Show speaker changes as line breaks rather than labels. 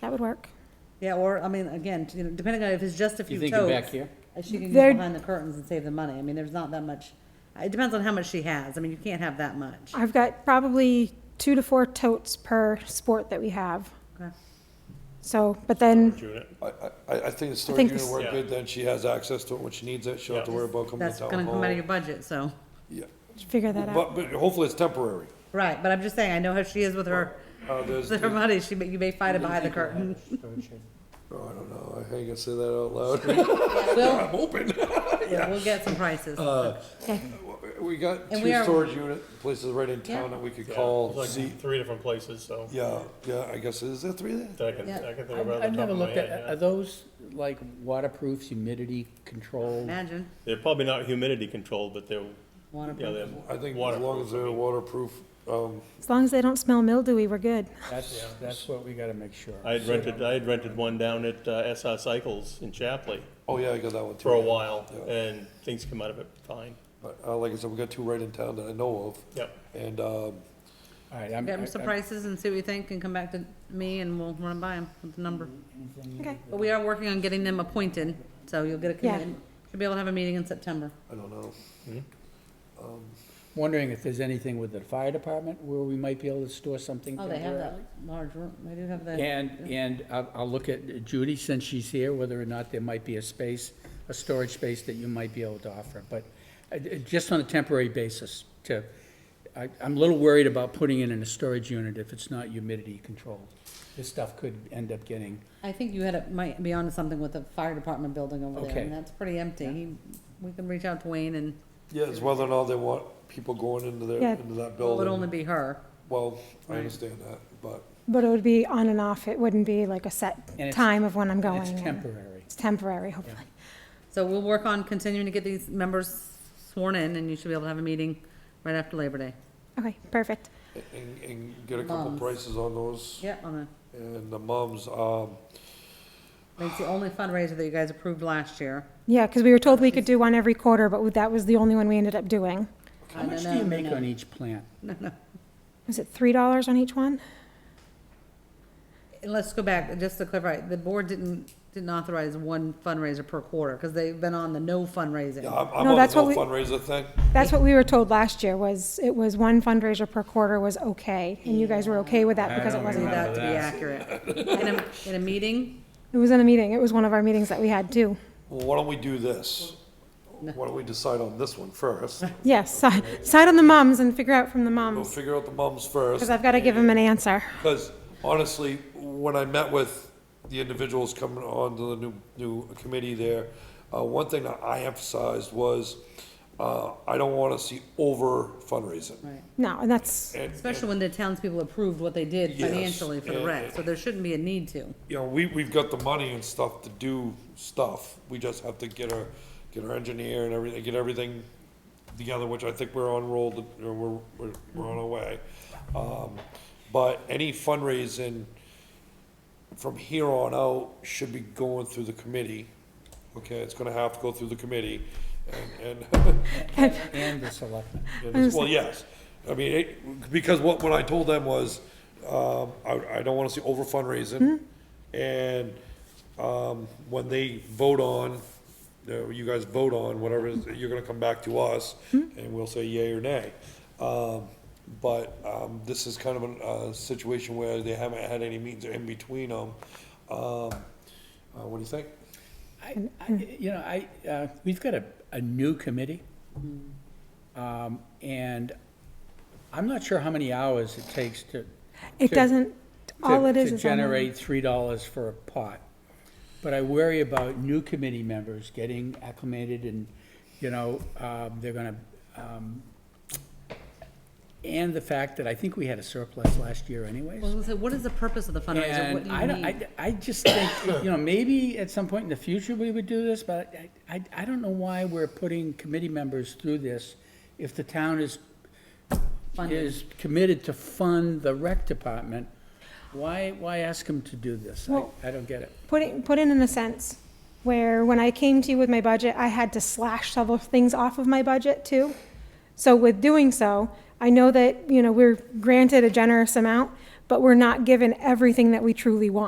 That would work.
Yeah, or, I mean, again, you know, depending on if it's just a few
You
totes.
thinking back here?
uh, She can
There-
get behind the curtains and save the money. I mean, there's not that much, uh, it depends on how much she has. I mean, you can't have that much.
I've got probably two to four totes per sport that we have.
Okay.
So, but then,
Unit.
I, I, I think the
think
storage unit
this-
work
Yeah.
good, then she has access to it when she needs it, she'll have to
Yeah.
worry about coming to
That's
town
gonna come out of
hall.
your budget, so.
Yeah.
figure that out.
But, but hopefully it's temporary.
Right, but I'm just saying, I know how she is with her,
Uh, there's,
with her
I
money. She, may- you may find it behind the curtain.
don't know, oh, I ain't gonna say that out loud.
We'll,
I'm open.
yeah, we'll get some prices.
Uh,
We got
And we
two
are-
storage unit places right in town
Yeah.
that we could
Yeah,
call,
it's
see,
like three different places, so
yeah, yeah, I guess, is there three there?
that I can,
Yeah.
I can think
I've I've
about off the top
never
of my
looked
head,
at, are
yeah.
those like waterproof, humidity control?
Imagine,
They're probably not humidity controlled, but they're, you
wanna,
know, they're.
I think as long as they're waterproof, um,
As long as they don't smell mildewy, we're good.
That's, that's what we gotta make sure.
I had rented, I had rented one down at uh, SR Cycles in Chapley
oh yeah, I got that one too.
for a while,
Yeah.
and things come out of it fine.
But, uh, like I said, we got two right in town that I know of.
Yep.
And, um,
All right, I'm,
get
I-
them some
I-
prices and see what you think and come back to me and we'll run by them with the number.
Mm, Mm-hmm.
Okay.
But we are working on getting them appointed, so you'll get a
Yeah.
committee. Should be able to have a meeting in September.
I don't know.
wondering if there's anything with the fire department where we might be able to store something
Oh, they have that
temporarily?
large room. They do have that.
And, and I'll, I'll look at Judy, since she's here, whether or not there might be a space, a storage space that you might be able to offer, but uh, uh, just on a temporary basis to, I, I'm a little worried about putting it in a storage unit if it's not humidity controlled. This stuff could end up getting,
I think you had, a- might be onto something with the fire department building over there,
Okay.
and that's pretty empty. He- We can reach out to Wayne and
Yeah, it's whether or not they want people going into their,
Yeah.
into that
it would only
building.
be her.
Well, I
Right.
understand that, but
But it would be on and off. It wouldn't be like a
And
set
it's-
time of when I'm going.
it's
and-
temporary.
It's temporary, hopefully.
So we'll work on continuing to get these members sworn in, and you should be able to have a meeting right after Labor Day.
Okay, perfect.
and, and get a couple
Mums.
prices on those.
Yeah, on
And the mums, um,
the, it's the only fundraiser that you guys approved last year.
Yeah, because we were told we could do one every quarter, but that was the only one we ended up doing.
how
I
much do
don't
you
know,
make
no.
on each plant?
Was it three dollars on each one?
And let's go back, just to clarify, the board didn't, didn't authorize one fundraiser per quarter, because they've been on the no
yeah,
fundraising.
I'm, I'm
No,
on the
that's what
whole
we-
fundraiser thing.
That's what we were told last year, was, it was one fundraiser per quarter was okay, and you guys were okay with that
I
because it
don't
wasn't
Need
that.
that to be accurate. In a, in a meeting,
It was in a meeting, it was one of our meetings that we had too.
Well, why don't we do this? Why don't we decide on this one first?
Yes, si- side on the mums and figure out from the
We'll
mums,
figure out the mums first.
because I've got to give them an answer.
Because honestly, when I met with the individuals coming on to the new, new committee there, uh, one thing that I emphasized was, uh, I don't wanna see over fundraising.
Right.
No, and that's,
And-
especially when the townspeople approved what they did
Yes,
financially for the rec, so there shouldn't be a need to.
you know, we, we've got the money and stuff to do stuff. We just have to get our, get our engineer and everything, get everything together, which I think we're on roll, to- you know, we're, we're, we're on our way. Um, but any fundraising from here on out should be going through the committee. Okay, it's gonna have to go through the committee and, and
And the selectmen.
and it's- Well, yes. I mean, it, because what, what I told them was, um, I, I don't wanna see over fundraising. And, um, when they vote on, uh, you guys vote on whatever, it is, you're gonna come back to us and we'll say yay or nay. Um, but, um, this is kind of a, a situation where they haven't had any meetings in between them. Um, uh, what do you think?
I, I-
mm.
you know, I, uh, we've got a, a new committee.
Mm.
Um, and I'm not sure how many hours it takes to.
it
to-
doesn't, all
to-
it is
To
is. on the-
generate three dollars for a pot. But I worry about new committee members getting acclimated and, you know, um, they're gonna, um, and the fact that I think we had a surplus last year anyways.
Well, I was gonna say, what is the purpose of the fundraiser, what
And
do
I,
you
don't-
need?
I, I just think, you know, maybe at some point in the future we would do this, but I, I, I don't know why we're putting committee members through this if the town is,
Funding.
is committed to fund the rec department. Why, why ask them to do this? I,
Well-
I don't get it.
put it, put it in a sense where when I came to you with my budget, I had to slash several things off of my budget too. So with doing so, I know that, you know, we're granted a generous amount, but we're not given everything that we truly want.